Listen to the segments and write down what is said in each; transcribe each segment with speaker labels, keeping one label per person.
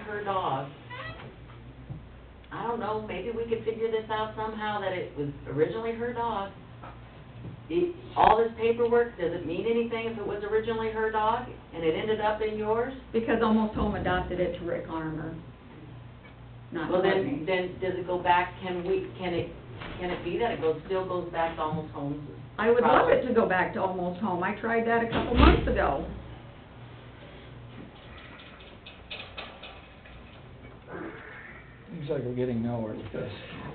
Speaker 1: her dog. I don't know, maybe we could figure this out somehow, that it was originally her dog. The- All this paperwork, does it mean anything if it was originally her dog and it ended up in yours?
Speaker 2: Because Almost Home adopted it to Rick Armour, not
Speaker 1: Well, then,
Speaker 2: Courtney.
Speaker 1: then does it go back, can we, can it, can it be that it goes, still goes back to almost homes?
Speaker 2: I would love it to go back to Almost Home, I tried that a couple months ago.
Speaker 3: Seems like we're getting nowhere with this.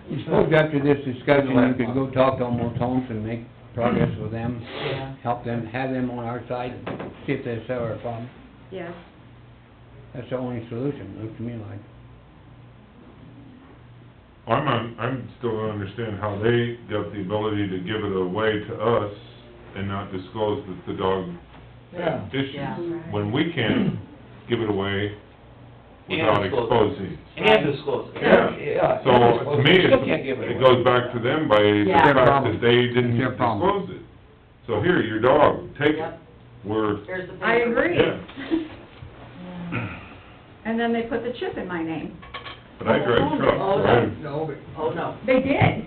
Speaker 4: You suppose after this discussion, you could go talk to Almost Homes and make progress with them,
Speaker 1: Yeah.
Speaker 4: help them, have them on our side, see if they solve our problem.
Speaker 2: Yes,
Speaker 4: That's the only solution, looks to me like.
Speaker 5: I'm, on- I'm still don't understand how they got the ability to give it away to us and not disclose that the dog
Speaker 3: Yeah.
Speaker 1: Yeah.
Speaker 5: issues, when we can't give it away without
Speaker 6: And disclose it.
Speaker 5: exposing.
Speaker 6: And disclose it.
Speaker 5: Yeah.
Speaker 3: Yeah.
Speaker 5: So, to me,
Speaker 3: Still can't
Speaker 5: it
Speaker 3: give it
Speaker 5: it
Speaker 3: away.
Speaker 5: goes back to them by the
Speaker 1: Yeah. Their
Speaker 5: fact
Speaker 4: problem.
Speaker 5: that they didn't
Speaker 4: Their problem.
Speaker 5: disclose it. So here, your dog, take it,
Speaker 1: Yep,
Speaker 5: we're,
Speaker 1: here's the paper.
Speaker 2: I agree.
Speaker 5: Yeah.
Speaker 2: And then they put the chip in my name.
Speaker 5: but I drive trucks,
Speaker 1: Oh,
Speaker 5: so
Speaker 1: no.
Speaker 5: I'm-
Speaker 3: No, but
Speaker 1: Oh, no,
Speaker 2: They did.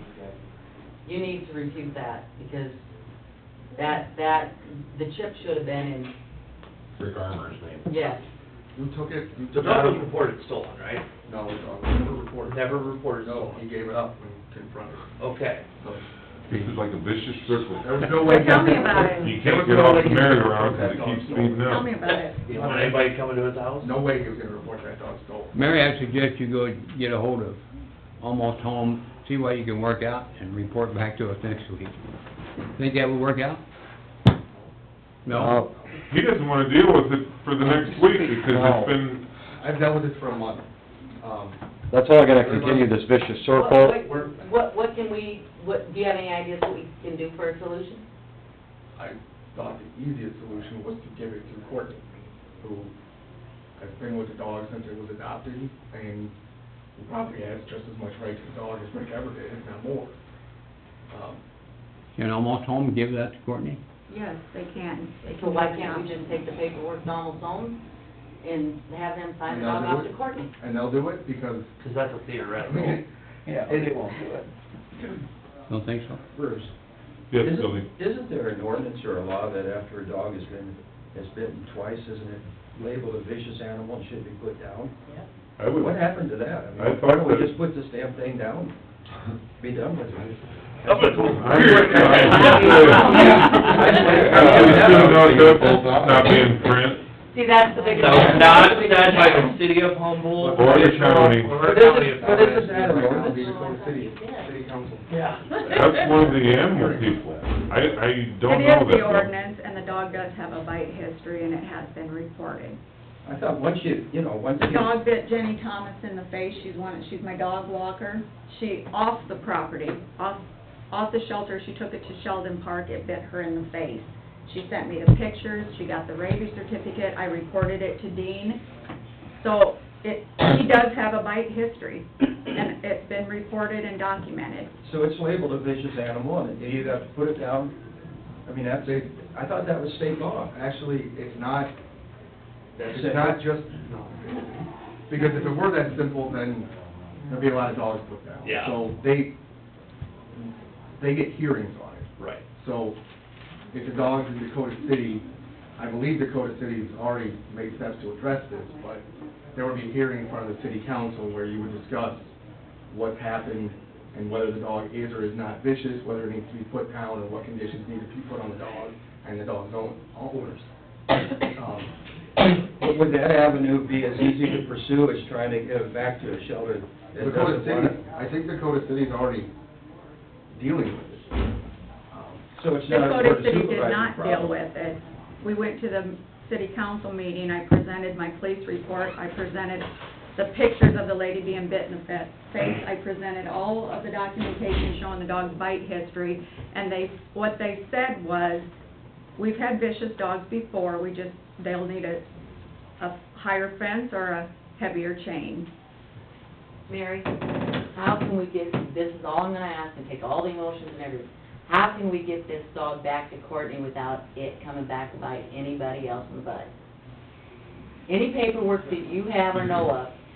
Speaker 1: you need to refute that, because that, that, the chip should have been
Speaker 7: Rick Armour's
Speaker 1: in,
Speaker 7: name.
Speaker 1: yes.
Speaker 7: You took it, you
Speaker 6: The
Speaker 7: took it
Speaker 6: dog
Speaker 7: out of...
Speaker 6: was reported stolen, right?
Speaker 7: No, the dog was never reported.
Speaker 6: Never reported
Speaker 7: No, he
Speaker 6: stolen.
Speaker 7: gave it up when confronted.
Speaker 6: Okay.
Speaker 7: So,
Speaker 5: this is like a vicious
Speaker 7: There
Speaker 5: circle.
Speaker 7: was no way...
Speaker 2: Tell me about it.
Speaker 5: You can't get off the merry-go-round because it keeps speeding up.
Speaker 2: Tell me about it.
Speaker 6: You don't want anybody coming to his house?
Speaker 7: No way he was gonna report that dog stolen.
Speaker 4: Mary, I suggest you go get a hold of Almost Home, see what you can work out, and report back to us next week. Think that would work out? No?
Speaker 5: He doesn't wanna deal with it for the next week because
Speaker 8: No.
Speaker 5: it's been,
Speaker 7: I've dealt with it for a month. Um,
Speaker 8: That's how we're gonna continue this vicious circle.
Speaker 1: What- what- What, what can we, what, do you have any ideas what we can do for a solution?
Speaker 7: I thought the easiest solution was to give it to Courtney, who has been with the dog since it was adopted, and who probably has just as much right to the dog as Rick ever did, if not more. Um,
Speaker 4: Can Almost Home give that to Courtney?
Speaker 2: Yes, they can. They
Speaker 1: So
Speaker 2: can
Speaker 1: why
Speaker 2: do
Speaker 1: can't we
Speaker 2: that.
Speaker 1: just take the paperwork to Almost Homes and have them sign it
Speaker 7: And I'll
Speaker 1: off
Speaker 7: do
Speaker 1: off
Speaker 7: it.
Speaker 1: to Courtney?
Speaker 7: And they'll do it because,
Speaker 6: Because that's a
Speaker 7: I
Speaker 6: theoretical.
Speaker 7: mean,
Speaker 8: Yeah, they won't do it.
Speaker 4: Don't think so?
Speaker 8: Bruce,
Speaker 5: yes, Billy.
Speaker 8: isn't, isn't there an ordinance or a law that after a dog has been, has bitten twice, isn't it labeled a vicious animal and should be put down?
Speaker 5: I would,
Speaker 8: What happened to that? I
Speaker 5: I
Speaker 8: mean,
Speaker 5: thought
Speaker 8: why don't we
Speaker 5: that-
Speaker 8: just put this damn thing down? Be done with it.
Speaker 5: not be in print.
Speaker 1: See, that's the big.
Speaker 6: So not said by the city of Humboldt.
Speaker 5: Or the county.
Speaker 6: Or the county of
Speaker 8: But
Speaker 6: Humboldt.
Speaker 8: isn't that an
Speaker 7: Right now,
Speaker 8: ordinance?
Speaker 7: we just go to city, city council.
Speaker 6: Yeah.
Speaker 5: That's one of the animal people. I, I don't
Speaker 2: It is
Speaker 5: know that.
Speaker 2: the
Speaker 5: though.
Speaker 2: ordinance, and the dog does have a bite history, and it has been reported.
Speaker 8: I thought once you, you know, once
Speaker 2: The
Speaker 8: you...
Speaker 2: dog bit Jenny Thomas in the face, she's one, she's my dog walker. She, off the property, off, off the shelter, she took it to Sheldon Park, it bit her in the face. She sent me the pictures, she got the rabies certificate, I reported it to Dean. So it, she does have a bite history, and it's been reported and documented.
Speaker 8: So it's labeled a vicious animal, and you either have to put it down, I mean, that's, a- I thought that was state law.
Speaker 7: Actually, it's not, it's not just, no. Because if it were that simple, then there'd be a lot of dogs put down.
Speaker 6: Yeah.
Speaker 7: So they, they get hearings on it.
Speaker 6: Right.
Speaker 7: So if the dog's in Dakota City, I believe Dakota City's already made steps to address this, but there would be a hearing in front of the city council where you would discuss what's happened and whether the dog is or is not vicious, whether it needs to be put down, and what conditions need to be put on the dog and the dog's own owners. Um,
Speaker 8: But Would that avenue be as easy to pursue as trying to get it back to a shelter that
Speaker 7: Dakota
Speaker 8: doesn't want
Speaker 7: City,
Speaker 8: it?
Speaker 7: I think Dakota City's already dealing with it. Um,
Speaker 8: So it's not a
Speaker 2: Dakota
Speaker 8: board of
Speaker 2: City did
Speaker 8: supervisors
Speaker 2: not deal
Speaker 8: problem?
Speaker 2: with it. We went to the city council meeting, I presented my police report, I presented the pictures of the lady being bit in the fa- face, I presented all of the documentation showing the dog's bite history, and they, what they said was, we've had vicious dogs before, we just, they'll need a, a higher fence or a heavier chain.
Speaker 1: Mary, how can we get, this is all I'm gonna ask, and take all the emotions and everything. How can we get this dog back to Courtney without it coming back to bite anybody else in the butt? Any paperwork that you have or know of,